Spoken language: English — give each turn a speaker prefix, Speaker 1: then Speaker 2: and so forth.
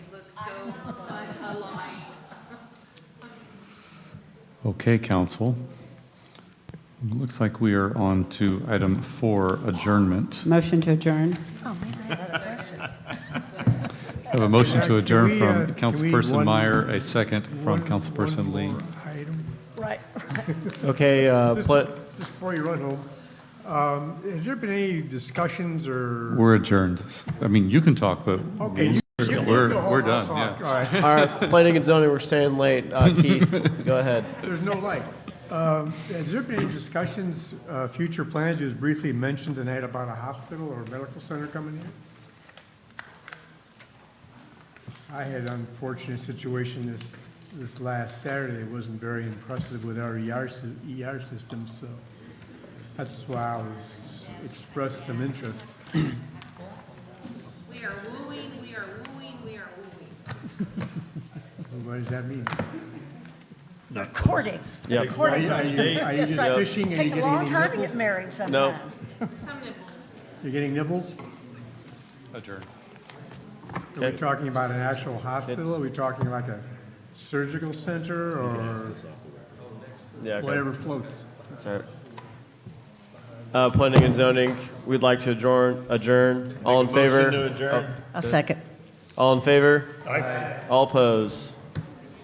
Speaker 1: but a line.
Speaker 2: Okay, council. Looks like we are on to item four, adjournment.
Speaker 3: Motion to adjourn.
Speaker 2: I have a motion to adjourn
Speaker 4: Can we, uh,
Speaker 2: from
Speaker 4: can we
Speaker 2: Councilperson
Speaker 4: one-
Speaker 2: Meyer, a second from
Speaker 4: One-
Speaker 2: Councilperson
Speaker 4: one
Speaker 2: Lee.
Speaker 4: more item.
Speaker 5: Okay, uh, pla-
Speaker 4: Just before you run home, um, has there been any discussions or?
Speaker 2: We're adjourned. I mean, you can talk, but
Speaker 4: Okay, you-
Speaker 2: we're,
Speaker 4: Go
Speaker 2: we're
Speaker 4: home,
Speaker 2: we're
Speaker 4: I'll
Speaker 2: done,
Speaker 4: talk.
Speaker 2: yeah.
Speaker 4: All right.
Speaker 5: all right, planning and zoning, we're staying late. Uh, Keith, go ahead.
Speaker 4: There's no light. Um, Has there been any discussions, uh, future plans, it was briefly mentioned tonight about a hospital or a medical center coming in? I had an unfortunate situation this, this last Saturday, It wasn't very impressive with our ER, sy- ER system, so that's why I was, expressed some interest.
Speaker 1: We are wooing, we are wooing, we are wooing.
Speaker 4: What does that mean?
Speaker 6: Recording.
Speaker 5: Yep.
Speaker 4: Are
Speaker 6: Recording.
Speaker 4: you, are you are you
Speaker 6: That's
Speaker 4: just
Speaker 6: right.
Speaker 4: fishing and
Speaker 6: Takes
Speaker 4: you're getting
Speaker 6: a long
Speaker 4: any
Speaker 6: time to
Speaker 4: nibbles?
Speaker 6: get married
Speaker 5: No.
Speaker 6: sometimes.
Speaker 1: Some nibbles.
Speaker 4: You're getting nibbles?
Speaker 2: Adjourned.
Speaker 4: Are we talking about an actual hospital? Are we talking like a surgical center or
Speaker 5: Yeah, okay.
Speaker 4: whatever floats?
Speaker 5: That's all right. Uh, planning and zoning, we'd like to adjourn, adjourn. All in favor? Oh,
Speaker 6: A second.
Speaker 5: All in favor? All opposed?